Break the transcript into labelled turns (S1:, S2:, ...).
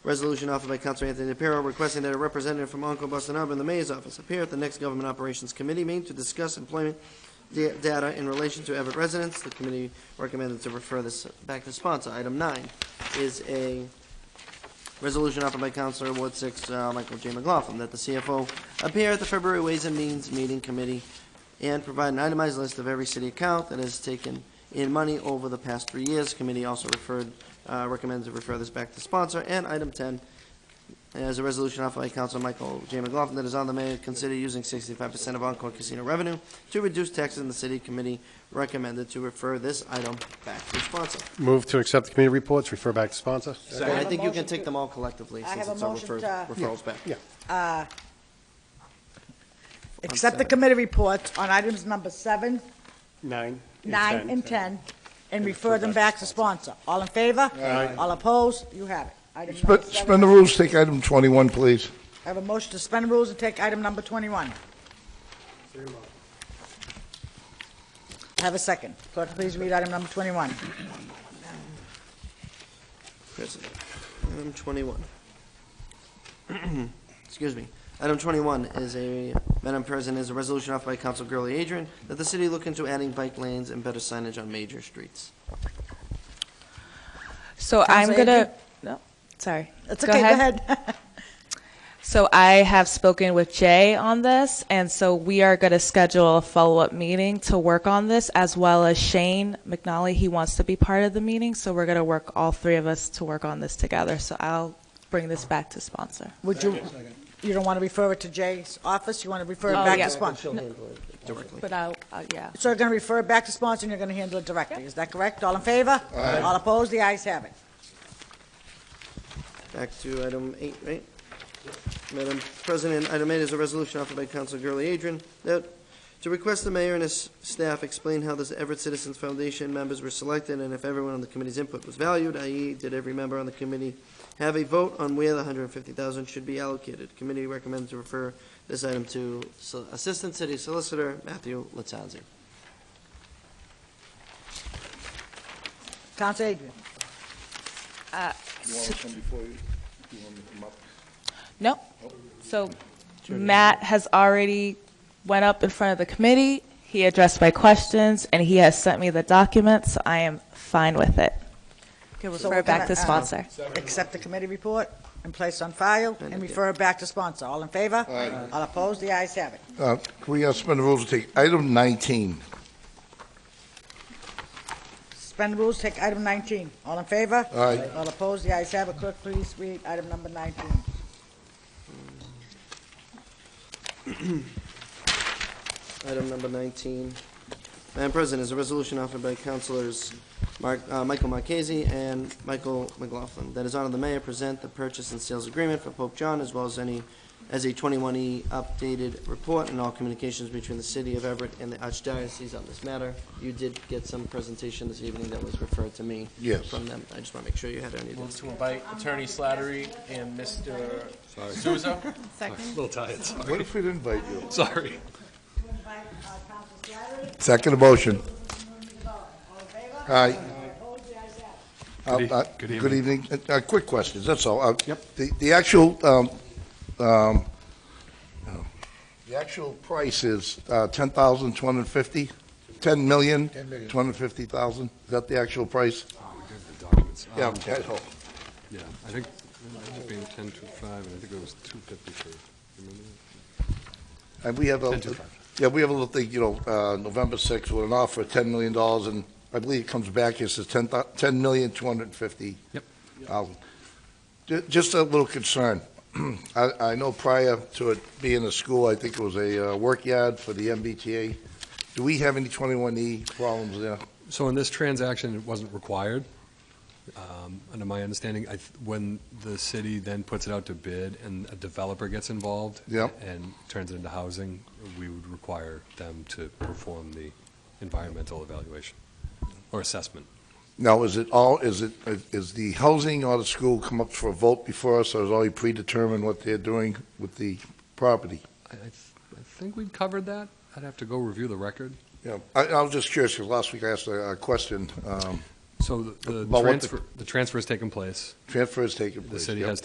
S1: Resolution offered by Councilor Anthony DePiero requesting that a representative from Uncle Boston Harbor in the mayor's office appear at the next Government Operations Committee meeting to discuss employment da- data in relation to Everett residents. The committee recommended to refer this back to sponsor. Item nine is a resolution offered by Councilor Ward Six, uh, Michael J. McLaughlin, that the CFO appear at the February Ways and Means Meeting Committee and provide an itemized list of every city account that has taken in money over the past three years. Committee also referred, uh, recommends to refer this back to sponsor. And item 10 is a resolution offered by Council Michael J. McLaughlin that is on the mayor to consider using 65% of Encore Casino revenue to reduce taxes in the city. Committee recommended to refer this item back to sponsor.
S2: Move to accept the committee reports, refer back to sponsor.
S1: And I
S3: have a
S1: think you can
S3: motion
S1: take
S3: to-
S1: them all collectively
S3: I
S1: since
S3: have a
S1: it's all
S3: motion
S1: referred-
S3: to-
S1: referrals back.
S2: Yeah,
S3: Accept the
S1: seven.
S3: committee reports on items number seven,
S2: nine.
S3: nine, and 10, and refer them back to sponsor. All in favor?
S2: Aye.
S3: All opposed? You have it. Item
S4: Spe-
S3: number seven.
S4: Suspend the rules, take item 21, please.
S3: I have a motion to suspend rules and take item number 21. I have a second. Clerk, please read item number 21.
S1: President. Item 21. Excuse me. Item 21 is a, Madam President, is a resolution offered by Council Gurley Adrian that the city look into adding bike lanes and better signage on major streets.
S5: So
S3: Council
S5: I'm gonna,
S3: Aiken?
S5: no, sorry.
S3: It's okay, go ahead.
S5: So I have spoken with Jay on this, and so we are gonna schedule a follow-up meeting to work on this, as well as Shane McNally, he wants to be part of the meeting, so we're gonna work, all three of us, to work on this together. So I'll bring this back to sponsor.
S3: Would you, you don't want to refer it to Jay's office? You want to refer it
S5: Oh,
S3: back
S5: yeah.
S3: to sponsor?
S1: Directly.
S5: But I'll,
S3: uh,
S5: I'll- yeah.
S3: So you're going to refer it back to sponsor, and you're going to handle it directly. Is that correct? All in favor? All opposed? The ayes have it.
S1: Back to item eight, right? Madam President, item eight is a resolution offered by Council Gurley Adrian that to request the mayor and his staff explain how this Everett Citizens Foundation members were selected and if everyone on the committee's input was valued, i.e., did every member on the committee have a vote on where the hundred and fifty thousand should be allocated? Committee recommends to refer this item to Sol- Assistant City Solicitor Matthew Latanzi.
S3: Counsel Adrian.
S5: No. So Matt has already went up in front of the committee, he addressed my questions, and he has sent me the documents, so I am fine with it. Can
S3: So
S5: refer
S3: we're
S5: it back to
S3: gonna, uh,
S5: sponsor.
S3: Accept the committee report and place on file and refer it back to sponsor. All in favor? All opposed? The ayes have it.
S4: Uh, Can we uh, suspend the rules, take item 19?
S3: Suspend rules, take item 19. All in favor?
S4: Aye.
S3: All opposed? The ayes have it. Clerk, please read item number 19.
S1: Item number 19. Madam President, is a resolution offered by Councilors Mark- uh, Michael Marchese and Michael McLaughlin that is on the mayor present the purchase and sales agreement for Pope John as well as any, as a 21E updated report and all communications between the city of Everett and the archdiocese on this matter. You did get some presentation this evening that was referred to me.
S4: Yes.
S1: From them. I just want to make sure you had any of
S6: Move
S1: this.
S6: to invite Attorney Slattery and Mr. Souza.
S7: little tired. Sorry.
S4: What if we didn't invite you?
S7: Sorry.
S4: Second motion. Aye. Uh,
S7: Good e-
S4: uh,
S7: good
S4: Good evening. Uh, uh, Quick questions, that's all. Yep. The the actual, um, um, oh, the actual price is uh, 10,250? 10 million? 250,000? Is that the actual price?
S7: Oh, The documents.
S4: Yeah,
S7: Um,
S4: I know.
S7: Yeah, I think, I ended up being ten to five, and I think it was two fifty for, remember
S4: And we have a,
S7: 10,250.
S4: yeah, we have a little thing, you know, uh, November 6th, with an offer of $10 million, and I believe it comes back, it says 10, thou- 10,250,000.
S7: Yep.
S4: Ju- Just a little concern. I, I know prior to it being a school, I think it was a uh, work yard for the MBTA. Do we have any 21E problems there?
S7: that? So in this transaction, it wasn't required. Um, Under my understanding, I, th- when the city then puts it out to bid and a developer gets involved.
S4: Yep.
S7: And turns it into housing, we would require them to perform the environmental evaluation or assessment.
S4: Now, is it all, is it, is the housing or the school come up for a vote before us, or is already predetermined what they're doing with the property?
S7: I, I th- I think we covered that. I'd have to go review the record.
S4: Yeah, I, I was just curious, because last week I asked a, a question, um,
S7: So the- the
S4: About what the-
S7: transfer, the transfer's taken place.
S4: transfer has taken
S7: The
S4: place.
S7: city
S4: yep.
S7: has